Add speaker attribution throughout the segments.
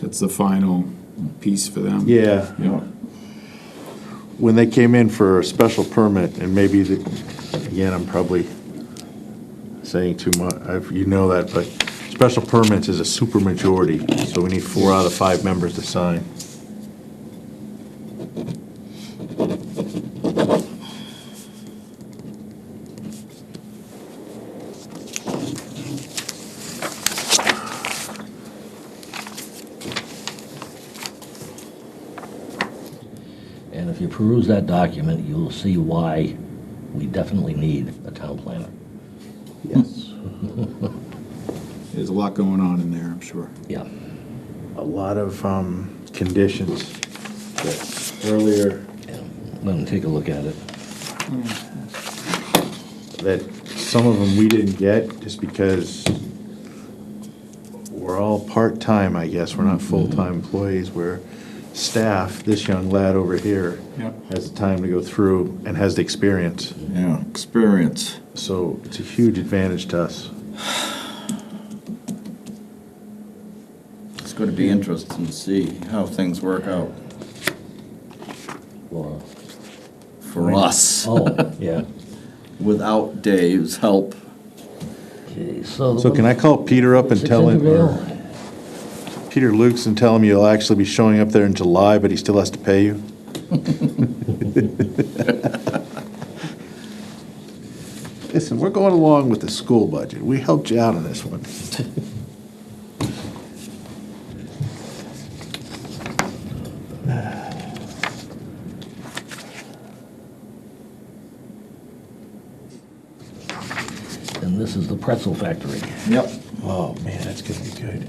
Speaker 1: that's the final piece for them.
Speaker 2: Yeah.
Speaker 1: Yeah.
Speaker 2: When they came in for a special permit, and maybe, the- again, I'm probably saying too much, you know that, but special permits is a supermajority, so we need four out of five members to sign.
Speaker 3: And if you peruse that document, you'll see why we definitely need a town planner.
Speaker 2: Yes.
Speaker 1: There's a lot going on in there, I'm sure.
Speaker 3: Yeah.
Speaker 2: A lot of um, conditions that earlier,
Speaker 3: yeah. Let him take a look at it.
Speaker 2: that some of them we didn't get, just because we're all part-time, I guess, we're not full-time employees, we're staff, this young lad over here
Speaker 1: Yep.
Speaker 2: has the time to go through and has the experience,
Speaker 4: Yeah, experience.
Speaker 2: so it's a huge advantage to us.
Speaker 4: It's going to be interesting to see how things work out
Speaker 3: Laura.
Speaker 4: for us
Speaker 3: Oh, yeah.
Speaker 4: without Dave's help.
Speaker 3: Okay, so. the
Speaker 2: So
Speaker 3: one-
Speaker 2: can I call Peter up and
Speaker 3: Six
Speaker 2: tell him,
Speaker 3: Intervale.
Speaker 2: or Peter Lukes and tell him you'll actually be showing up there in July, but he still has to pay you? Listen, we're going along with the school budget, we helped you out on this one.
Speaker 3: And this is the pretzel factory.
Speaker 4: Yep.
Speaker 2: Oh, man, that's gonna be good.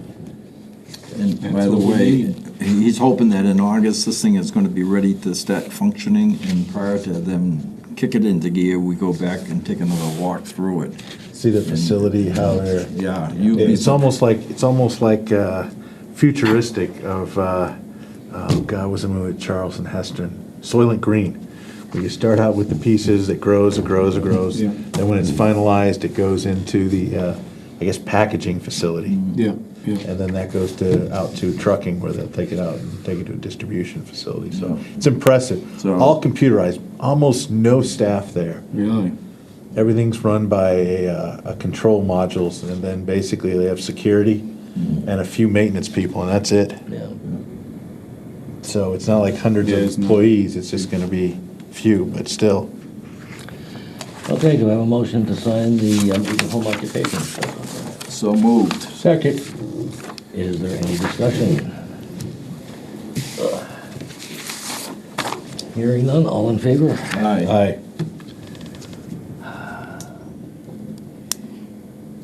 Speaker 4: And by
Speaker 1: That's
Speaker 4: the
Speaker 1: what we
Speaker 4: way,
Speaker 1: need.
Speaker 4: he's hoping that in August, this thing is going to be ready to start functioning, and prior to them kick it into gear, we go back and take another walk through it.
Speaker 2: See the facility, how they're.
Speaker 4: Yeah, you.
Speaker 2: It's almost like, it's almost like uh, futuristic of, uh, oh God, was the movie with Charles and Heston? Soylent Green, where you start out with the pieces, it grows, it grows, it grows.
Speaker 1: Yeah.
Speaker 2: And when it's finalized, it goes into the, uh, I guess, packaging facility.
Speaker 1: Yeah, yeah.
Speaker 2: And then that goes to, out to trucking where they'll take it out and take it to a distribution facility. So it's impressive.
Speaker 4: So-
Speaker 2: All computerized, almost no staff there.
Speaker 1: Really?
Speaker 2: Everything's run by a, uh, a control modules, and then basically they have security and a few maintenance people, and that's it.
Speaker 3: Yeah.
Speaker 2: So it's not like hundreds of
Speaker 1: Yeah, it's not-
Speaker 2: employees, it's just gonna be few, but still.
Speaker 3: Okay, do I have a motion to sign the um, Eaton home occupation?
Speaker 4: So moved.
Speaker 3: Second. Is there any discussion? Hearing none, all in favor?
Speaker 4: Aye.
Speaker 2: Aye.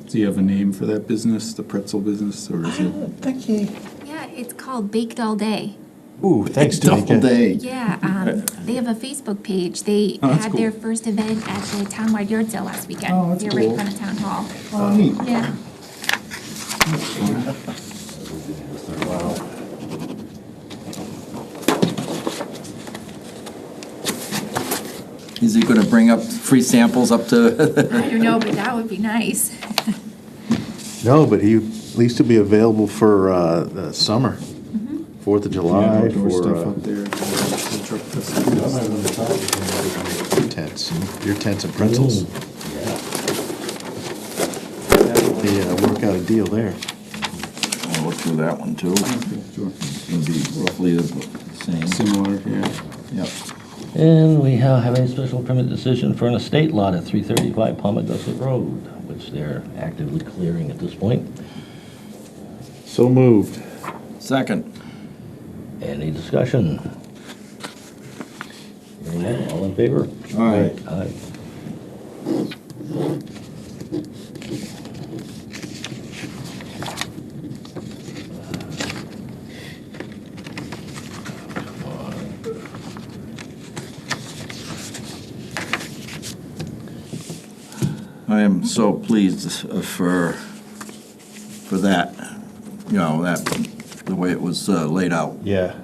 Speaker 1: Do you have a name for that business, the pretzel business, or is it?
Speaker 2: Thank you.
Speaker 5: Yeah, it's called Baked All Day.
Speaker 2: Ooh, thanks,
Speaker 4: Double
Speaker 2: Danica.
Speaker 4: day.
Speaker 5: Yeah, um, they have a Facebook page. They
Speaker 1: Oh, that's
Speaker 5: had their first event at the townwide yard sale last weekend.
Speaker 1: Oh, that's
Speaker 5: They're right
Speaker 1: cool.
Speaker 5: in front of town hall.
Speaker 1: Oh, neat.
Speaker 5: Yeah.
Speaker 4: Is he going to bring up free samples up to?
Speaker 5: I don't know, but that would be nice.
Speaker 2: No, but he, at least he'll be available for, uh, the summer, Fourth of
Speaker 1: Yeah,
Speaker 2: July,
Speaker 1: outdoor
Speaker 2: for,
Speaker 1: stuff
Speaker 2: uh,
Speaker 1: up there. the truck festival.
Speaker 2: tents, uh, your tents and pretzels. The, uh, work out a deal there.
Speaker 4: I'll look through that one too.
Speaker 1: Okay, sure.
Speaker 4: It'll be roughly the same.
Speaker 1: Similar, yeah.
Speaker 4: Yep.
Speaker 3: And we ha- have a special permit decision for an estate lot at 335 Palmagussit Road, which they're actively clearing at this point.
Speaker 2: So moved.
Speaker 4: Second.
Speaker 3: Any discussion? Hearing none, all in favor?
Speaker 4: Aye.
Speaker 3: Aye.
Speaker 4: I am so pleased uh, for, for that, you know, that, the way it was uh, laid out.
Speaker 2: Yeah,